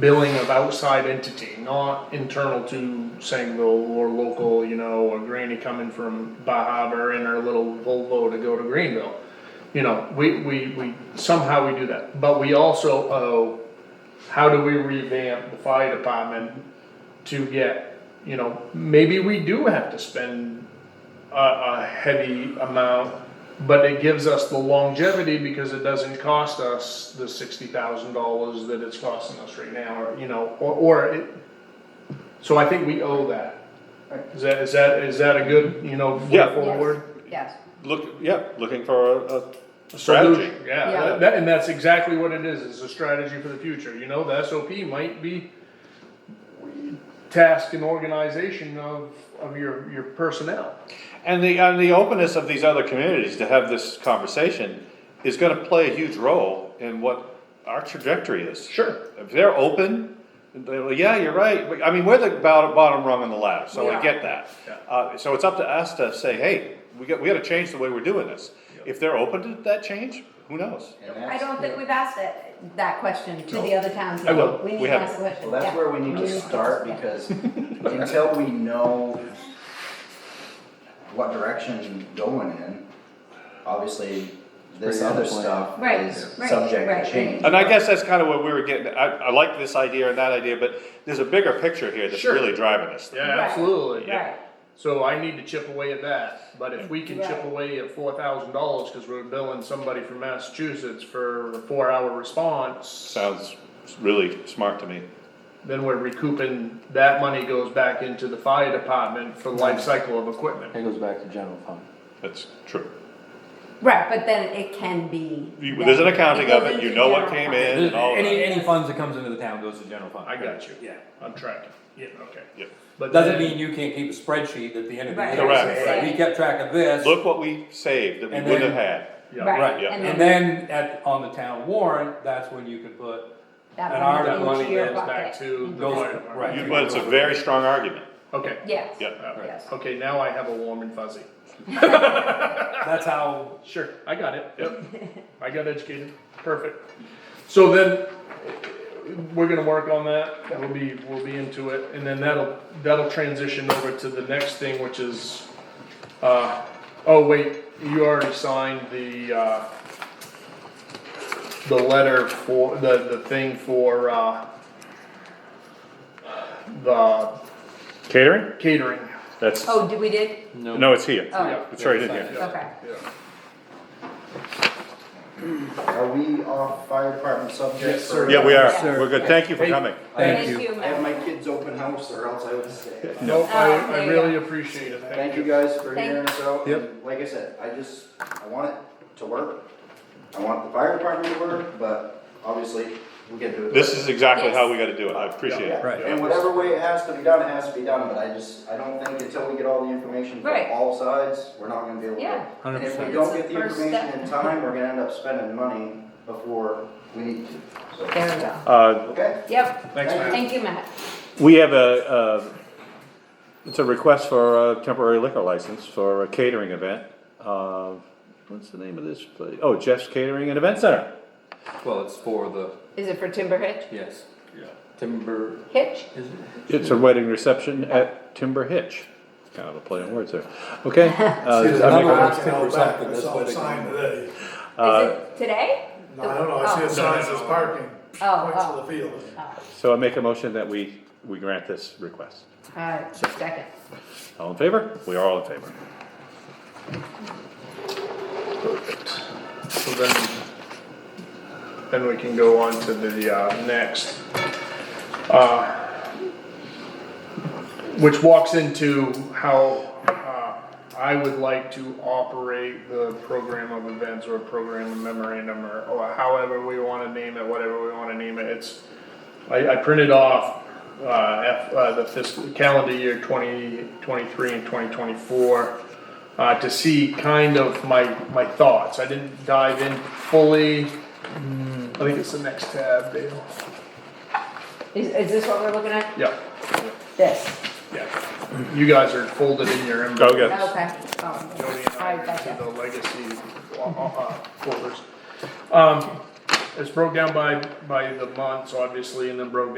billing of outside entity, not internal to Sangerville or local, you know, or Granny coming from Bar Harbor in her little Volvo to go to Greenville. You know, we, we, we, somehow we do that, but we also owe, how do we revamp the fire department to get, you know, maybe we do have to spend a, a heavy amount, but it gives us the longevity because it doesn't cost us the sixty thousand dollars that it's costing us right now, or, you know, or, or it, so I think we owe that. Is that, is that, is that a good, you know, way Yeah. Yes. forward? Yes, Look, yeah, looking for a, a- a strategy. Solution, Yeah, Yeah. that- that- and that's exactly what it is, it's a strategy for the future, you know, the SOP might be task and organization of, of your, your personnel. And the, and the openness of these other communities to have this conversation is gonna play a huge role in what our trajectory is. Sure. If they're open, they're like, yeah, you're right, But, I mean, we're the bottom, bottom rung on the ladder, so I Yeah. get that. Yeah. Uh, so it's up to us to say, hey, we got, we gotta change the way we're doing this. If they're open to that change, who knows? And I that's- don't think we've asked that, that question to the other towns. I will. We We need to haven't. ask the question. Well, that's Yeah. where we need to start, because until we know what direction going in, obviously, this other stuff Right, is right, subject right. to change. And I guess that's kinda what we were getting, at. I, I like this idea and that idea, but there's a bigger picture here that's Sure. really driving us. Yeah, Right, absolutely. Right, So I need to chip away at that, but if we can chip Right. away at four thousand dollars, cause we're billing somebody from Massachusetts for a four hour response, Sounds really smart to me. then we're recouping, that money goes back into the fire department for the life cycle of equipment. It goes back to general fund. That's true. right, but then it can be. You- there's an accounting of it, you know what came in and all Any, that. any funds that comes into the town goes to general fund. I got you. Yeah. I'm tracking, yeah, okay. Yep. But Doesn't then- mean you can't keep a spreadsheet at the end of the Right. year. Correct. Say, We kept track of this. Look what we saved that we And wouldn't have then- had. Yeah. Right, yeah. And and then then at, on the town warrant, that's when you can put, that an money article goes in into your there It's back bucket. to the Goes- fire department. right. You- But it's a very strong argument. Okay. Yes. Yeah. All right. Yes. Okay, now I have a warm and fuzzy. that's how, Sure, I got it, yep, I got educated, perfect. So then, we're gonna work on that, we'll be, we'll be into it, and then that'll, that'll transition over to the next thing, which is, uh, oh wait, you already signed the, uh, the letter for, the, the thing for, uh, the Catering? catering. That's, Oh, did we did? no, it's here. Oh, It's right in here. Yeah. okay. Yeah. Are we off fire department subject Yes, sir. for? Yeah, we are. Sure. We're good. Thank you for Hey. coming. thank you. I have my kids open house or else I would stay. No, Oh, I, there I you really go. appreciate it, Uh, Thank you guys for Thank- hearing us out. Yep. And Like I said, I just, I want it to work. I want the fire department to work, but obviously, we can do it. This is exactly how we gotta do it. I appreciate Yeah, it. Right. And whatever way it has to be done, it has to be done, but I just, I don't think until we get all the information Right. from all sides, we're not gonna be able to. Yeah. And if we 100%. don't get the It's the first information in time, we're gonna end up spending money before we need to, so. There we go. Uh, Okay? Yep. Thanks, Matt. Thank you, Matt. we have a, uh, it's a request for a temporary liquor license for a catering event. Uh, what's the name of this place? Oh, Jeff's Catering and Event Center. Well, it's for the, Is it for Timber Hitch? yes. Timber, Hitch? is it? It's a wedding reception at Timber Hitch. Kind of a play on words there. Okay. uh, I make a- Another one's timber something, I that's saw what a they- sign today. Is Uh, it today? No, I don't know, I see a Oh. sign that says parking, Oh, points to oh. the field. So I make a motion that we, we grant this request. Uh, second. All in favor? We are all in favor. So then, then we can go on to the, uh, next. uh, Which walks into how, uh, I would like to operate the program of events or program of memorandum or, or however we wanna name it, whatever we wanna name it, it's. I, I printed off, uh, F, uh, the fiscal, calendar year twenty twenty-three and twenty twenty-four uh, to see kind of my, my thoughts. I didn't dive in fully. Hmm. I think it's the next tab, Dale. Is, is this what we're looking at? Yeah, This? yeah. You guys are folded in your inbox. Go get Okay. Oh. Jody and I All right, are gotcha. into the legacy uh, uh, folders. Um, It's broke down by, by the months, obviously, and then broke